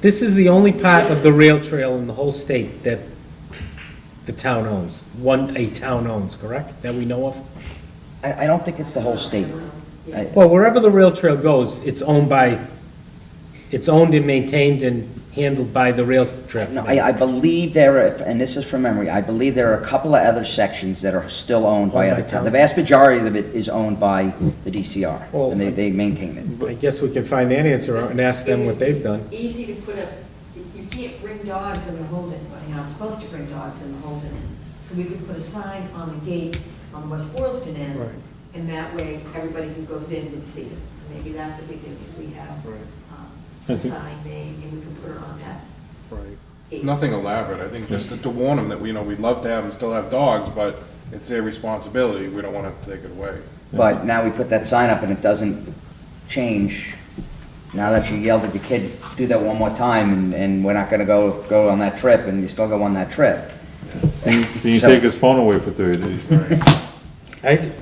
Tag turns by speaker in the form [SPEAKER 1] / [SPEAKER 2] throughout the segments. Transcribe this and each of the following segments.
[SPEAKER 1] This is the only part of the rail trail in the whole state that the town owns, one, a town owns, correct? That we know of?
[SPEAKER 2] I, I don't think it's the whole state. I-
[SPEAKER 1] Well, wherever the rail trail goes, it's owned by, it's owned and maintained and handled by the rail trail.
[SPEAKER 2] No, I, I believe there are, and this is from memory, I believe there are a couple of other sections that are still owned by
[SPEAKER 1] Owned by
[SPEAKER 2] other towns.
[SPEAKER 1] town.
[SPEAKER 2] The vast majority of it is owned by the DCR,
[SPEAKER 1] Well,
[SPEAKER 2] and they, they maintain it.
[SPEAKER 1] I guess we can find that answer out and ask them what they've done.
[SPEAKER 3] Easy to put a, you can't bring dogs in the Holden, well, you're not supposed to bring dogs in the Holden Inn. So we could put a sign on the gate on the West Boylston
[SPEAKER 1] Right.
[SPEAKER 3] Inn, and that way, everybody who goes in would see it. So maybe that's what we do, is we have
[SPEAKER 4] Right.
[SPEAKER 3] um,
[SPEAKER 5] I
[SPEAKER 3] a
[SPEAKER 5] think-
[SPEAKER 3] sign name, and we can put it on that
[SPEAKER 4] Right.
[SPEAKER 3] gate.
[SPEAKER 4] Nothing elaborate, I think just to- to warn them that, you know, we'd love to have them still have dogs, but it's their responsibility, we don't want to take it away.
[SPEAKER 2] But now we put that sign up and it doesn't change. Now that you yelled at the kid, do that one more time, and, and we're not gonna go, go on that trip, and you still go on that trip.
[SPEAKER 5] Then you
[SPEAKER 2] So-
[SPEAKER 5] take his phone away for thirty days.
[SPEAKER 6] Right?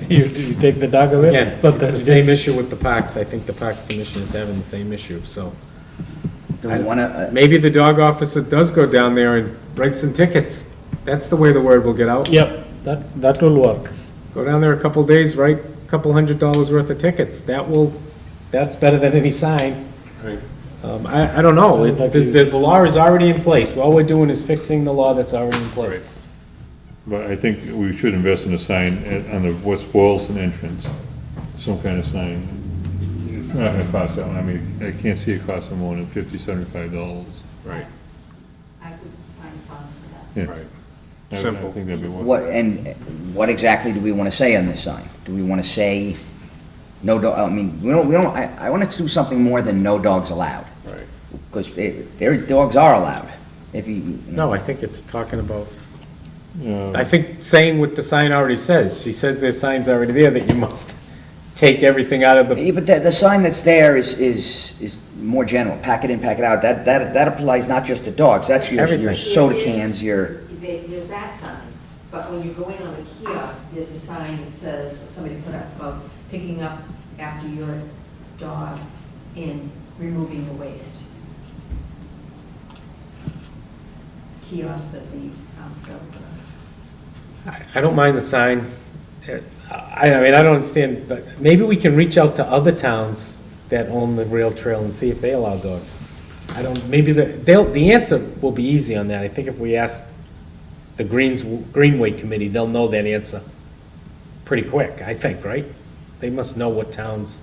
[SPEAKER 6] You, you take the dog away,
[SPEAKER 1] Again,
[SPEAKER 6] but
[SPEAKER 1] it's
[SPEAKER 6] the
[SPEAKER 1] the same issue with the parks. I think the Parks Commission is having the same issue, so.
[SPEAKER 2] Do we wanna, uh,
[SPEAKER 1] Maybe the dog officer does go down there and write some tickets. That's the way the word will get out.
[SPEAKER 6] Yep, that, that will work.
[SPEAKER 1] Go down there a couple days, write a couple hundred dollars worth of tickets. That will, that's better than any sign.
[SPEAKER 4] Right.
[SPEAKER 1] Um, I, I don't know. It's, the, the the law is already in place. All we're doing is fixing the law that's already in place.
[SPEAKER 5] But I think we should invest in a sign at, on the West Boylston entrance, some kind of sign. It's not gonna cost that, I mean, I can't see it costing more than fifty, seventy-five dollars.
[SPEAKER 4] Right,
[SPEAKER 3] I could find funds for that.
[SPEAKER 5] Yeah.
[SPEAKER 4] right.
[SPEAKER 5] I- I
[SPEAKER 4] Simple.
[SPEAKER 5] think that'd be worth it.
[SPEAKER 2] what, and what exactly do we wanna say on this sign? Do we wanna say, no dog, I mean, we don't, we don't, I, I wanna do something more than no dogs allowed.
[SPEAKER 4] Right.
[SPEAKER 2] Because their dogs are allowed, if you. you know.
[SPEAKER 1] No, I think it's talking about,
[SPEAKER 5] Yeah.
[SPEAKER 1] I think saying what the sign already says. She says there's signs already there that you must take everything out of the
[SPEAKER 2] Yeah, But the, the sign that's there is, is, is more general, pack it in, pack it out, that, that, that applies not just to dogs, that's your, your
[SPEAKER 1] Everything.
[SPEAKER 2] soda
[SPEAKER 3] It is-
[SPEAKER 2] cans, your,
[SPEAKER 3] they- There's that sign, but when you go in on the kiosk, there's a sign that says, somebody put up about picking up after your dog and removing the waste. Kiosk that leaves, um, stuff.
[SPEAKER 1] I I don't mind the sign. I, I mean, I don't understand, but maybe we can reach out to other towns that own the rail trail and see if they allow dogs. I don't, maybe the, they'll, the answer will be easy on that. I think if we ask the Greens, Greenway Committee, they'll know that answer pretty quick, I think, right? They must know what towns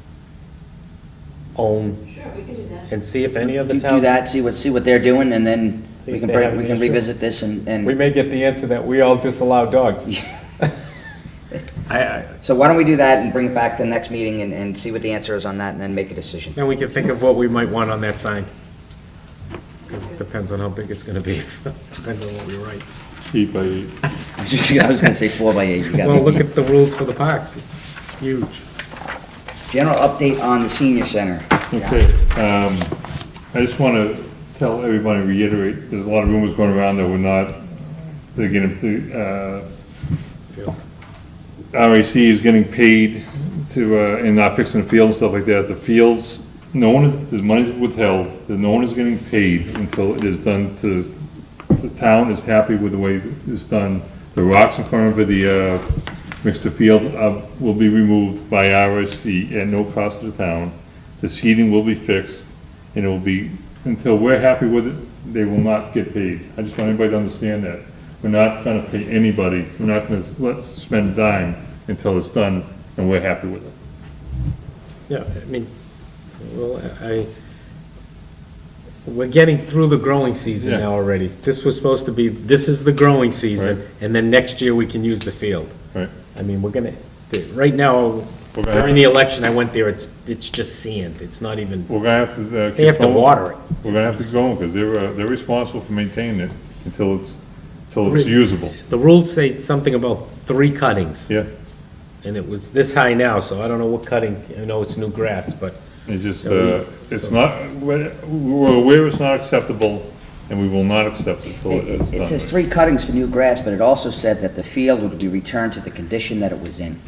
[SPEAKER 1] own
[SPEAKER 3] Sure, we can do that.
[SPEAKER 1] and see if any
[SPEAKER 2] do
[SPEAKER 1] other
[SPEAKER 2] do
[SPEAKER 1] towns.
[SPEAKER 2] that, see what, see what they're doing, and then
[SPEAKER 1] See
[SPEAKER 2] we
[SPEAKER 1] if
[SPEAKER 2] can
[SPEAKER 1] they have
[SPEAKER 2] bring, we
[SPEAKER 1] an
[SPEAKER 2] can
[SPEAKER 1] issue.
[SPEAKER 2] revisit this and,
[SPEAKER 1] We
[SPEAKER 2] and,
[SPEAKER 1] may get the answer that we all disallow dogs. I, I,
[SPEAKER 2] so why don't we do that and bring it back to the next meeting and, and see what the answer is on that, and then make a decision.
[SPEAKER 1] Then we can think of what we might want on that sign. Because it depends on how big it's gonna be, depends on what we write.
[SPEAKER 5] Eight by eight.
[SPEAKER 2] I was just, I was gonna say four by eight, you got me.
[SPEAKER 1] Well, look at the rules for the parks, it's it's huge.
[SPEAKER 2] General update on the senior center.
[SPEAKER 5] Okay, um, I just want to tell everybody, reiterate, there's a lot of rumors going around that we're not, they're getting, the, uh, RAC is getting paid to, uh, and not fixing the field and stuff like that. The fields, no one, the money's withheld, that no one is getting paid until it is done to, the town is happy with the way it's done. The rocks in front of the, uh, mixed field uh, will be removed by RSC at no cost to the town. The seating will be fixed, and it will be, until we're happy with it, they will not get paid. I just want everybody to understand that. We're not gonna pay anybody, we're not gonna s- let- spend a dime until it's done and we're happy with it.
[SPEAKER 1] Yeah, I mean, well, I, we're getting through the growing season
[SPEAKER 5] Yeah.
[SPEAKER 1] now already. This was supposed to be, this is the growing season,
[SPEAKER 5] Right.
[SPEAKER 1] and then next year we can use the field.
[SPEAKER 5] Right.
[SPEAKER 1] I mean, we're gonna, right now,
[SPEAKER 5] We're gonna-
[SPEAKER 1] during the election, I went there, it's, it's just sand, it's not even.
[SPEAKER 5] We're gonna have to. uh,
[SPEAKER 1] They have to
[SPEAKER 5] keep going.
[SPEAKER 1] water it.
[SPEAKER 5] We're gonna have to go, because they're, uh, they're responsible for maintaining it until it's, until it's usable,
[SPEAKER 1] The rules say something about three cuttings,
[SPEAKER 5] yeah?
[SPEAKER 1] and it was this high now, so I don't know what cutting, I know it's new grass, but
[SPEAKER 5] It just,
[SPEAKER 1] Yeah, we-
[SPEAKER 5] uh, it's not, we're we're aware it's not acceptable, and we will not accept it till
[SPEAKER 2] It
[SPEAKER 5] it is
[SPEAKER 2] it says
[SPEAKER 5] done.
[SPEAKER 2] three cuttings for new grass, but it also said that the field would be returned to the condition that it was in.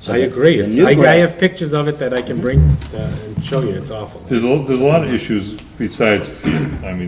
[SPEAKER 2] So
[SPEAKER 1] I
[SPEAKER 2] the-
[SPEAKER 1] agree.
[SPEAKER 2] the
[SPEAKER 1] It's-
[SPEAKER 2] new
[SPEAKER 1] I, I
[SPEAKER 2] grass-
[SPEAKER 1] have pictures of it that I can bring uh, and show you. It's awful.
[SPEAKER 5] There's a, there's a lot of issues besides field, I mean,